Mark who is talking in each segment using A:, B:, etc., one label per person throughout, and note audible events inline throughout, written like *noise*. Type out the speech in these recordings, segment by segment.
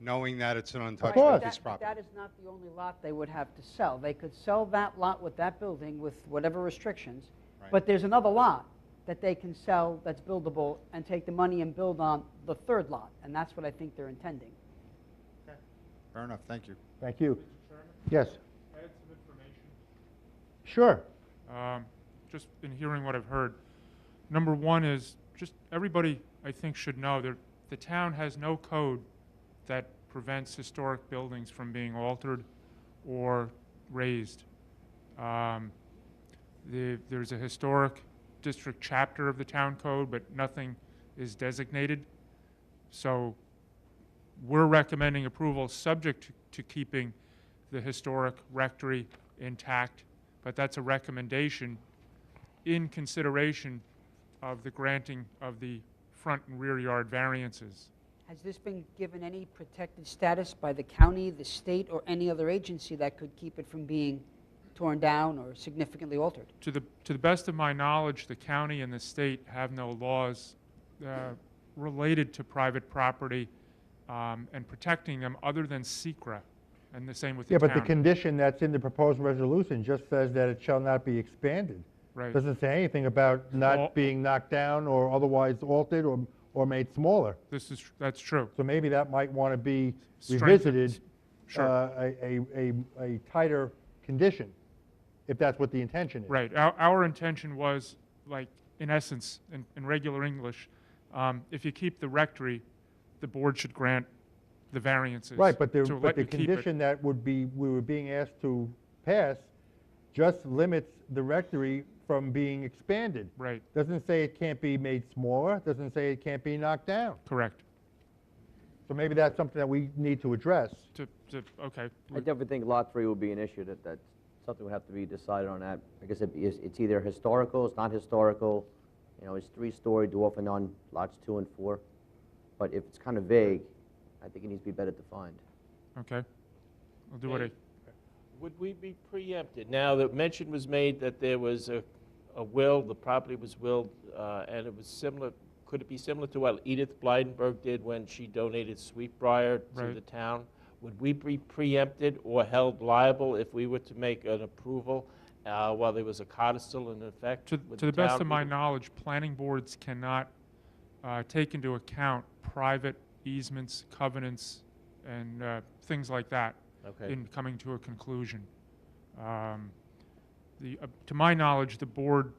A: knowing that it's an
B: Right,
A: untouchable
B: but
A: piece
B: that-
A: of
B: but That
A: property.
B: is not the only lot they would have to sell. They could sell that lot with that building with whatever restrictions,
A: Right.
B: but there's another lot that they can sell that's buildable and take the money and build on the third lot, and that's what I think they're intending.
A: Fair enough, thank you.
C: Thank you.
D: Chairman,
C: Yes,
D: I had some information.
C: sure.
D: Um, Just in hearing what I've heard, number one is, just, everybody, I think, should know, that the town has no code that prevents historic buildings from being altered or raised. Um, the- There's a historic district chapter of the town code, but nothing is designated. So we're recommending approval subject to- to keeping the historic rectory intact, but that's a recommendation in consideration of the granting of the front and rear yard variances.
B: Has this been given any protected status by the county, the state, or any other agency that could keep it from being torn down or significantly altered?
D: To the, to the best of my knowledge, the county and the state have no laws uh, related to private property um, and protecting them other than secra, and the same with the
C: Yeah,
D: town.
C: but the condition that's in the proposed resolution just says that it shall not be expanded.
D: Right.
C: Doesn't say anything about
D: Well-
C: not being knocked down or otherwise altered or, or made smaller.
D: This is, tr- that's true.
C: So maybe that might want to be
D: Strength-
C: revisited,
D: Sure.
C: uh, a a- a- a tighter condition, if that's what the intention is.
D: Right. Our, our intention was, like, in essence, in, in regular English, um, if you keep the rectory, the board should grant the variances.
C: Right, but the,
D: to
C: but
D: let
C: the
D: you keep it.
C: condition that would be, we were being asked to pass just limits the rectory from being expanded.
D: Right,
C: Doesn't say it can't be made smaller, doesn't say it can't be knocked down.
D: correct.
C: So maybe that's something that we need to address.
D: To, to, okay.
E: I definitely think Lot 3 would be an issue, that, that something would have to be decided on that. I guess it'd be- it's it's either historical, it's not historical, you know, it's three-story dwarf and on lots 2 and 4. But if it's kind of vague, I think it needs to be better defined.
D: Okay. I'll do what I,
F: Okay. Would we be preempted? Now, the mention was made that there was a, a will, the property was willed, uh, and it was similar, could it be similar to what Edith Blydenberg did when she donated Sweetbriar to
D: Right.
F: the town? Would we be preempted or held liable if we were to make an approval uh, while there was a codicil in effect?
D: to,
F: Would
D: to the best
F: town
D: of my
F: be-
D: knowledge, planning boards cannot, uh, take into account private easements, covenants, and, uh, things like that.
F: Okay.
D: in coming to a conclusion. Um, The, uh, to my knowledge, the board,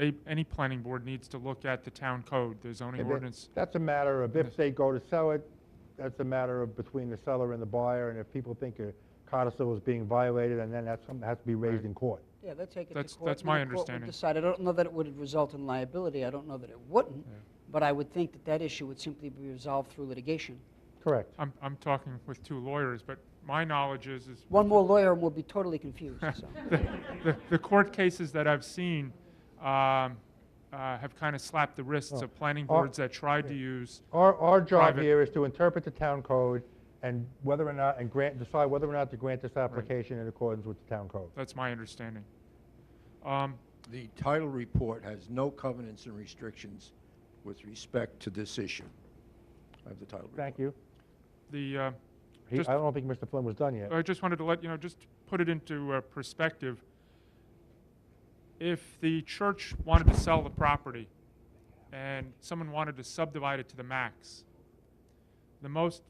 D: a- any planning board needs to look at the town code, the zoning
C: And that-
D: ordinance.
C: That's a matter of if
D: Yes.
C: they go to sell it, that's a matter of between the seller and the buyer, and if people think a codicil is being violated, and then that's something that has to be raised
D: Right.
C: in court.
B: Yeah, they'll take it to
D: That's-
B: court.
D: that's
B: and then
D: my
B: the court would
D: understanding.
B: decide. I don't know that it would result in liability. I don't know that it wouldn't, but I would think that that issue would simply be resolved through litigation.
C: Correct.
D: I'm, I'm talking with two lawyers, but my knowledge is, is
B: One more lawyer and we'll be totally confused,
D: *laughs*
B: so.
D: the- the court cases that I've seen um, uh, have kind of slapped the wrists of planning
C: Our-
D: boards that tried to use,
C: Our, our job
D: Private.
C: here is to interpret the town code and whether or not, and grant, decide whether or not to grant this application in accordance with the town code.
D: that's my understanding. Um,
G: The title report has no covenants and restrictions with respect to this issue. I have the title report.
C: Thank you.
D: The, uh,
C: He-
D: just-
C: I don't think Mr. Flynn was done yet.
D: I just wanted to let you know, just put it into uh, perspective. If the church wanted to sell the property and someone wanted to subdivide it to the max, the most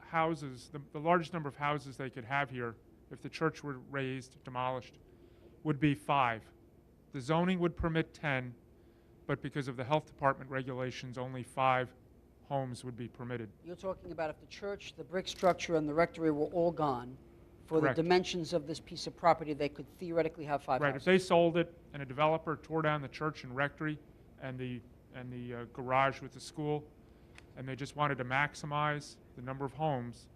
D: houses, the, the largest number of houses they could have here, if the church were raised, demolished, would be five. The zoning would permit 10, but because of the health department regulations, only five homes would be permitted.
B: You're talking about if the church, the brick structure, and the rectory were all gone, for the
D: Correct.
B: dimensions of this piece of property, they could theoretically have five
D: Right, if
B: houses.
D: they sold it and a developer tore down the church and rectory and the, and the uh, garage with the school, and they just wanted to maximize the number of homes,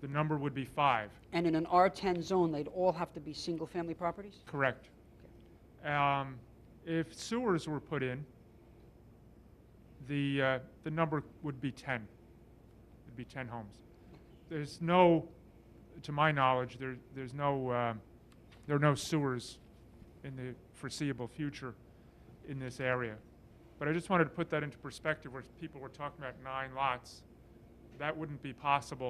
D: the number would be five,
B: And in an R10 zone, they'd all have to be single-family properties?
D: correct? Um, If sewers were put in, the, uh, the number would be 10. It'd be 10 homes. There's no, to my knowledge, there, there's no, uh, there are no sewers in the foreseeable future in this area. But I just wanted to put that into perspective, where people were talking about nine lots. That wouldn't be possible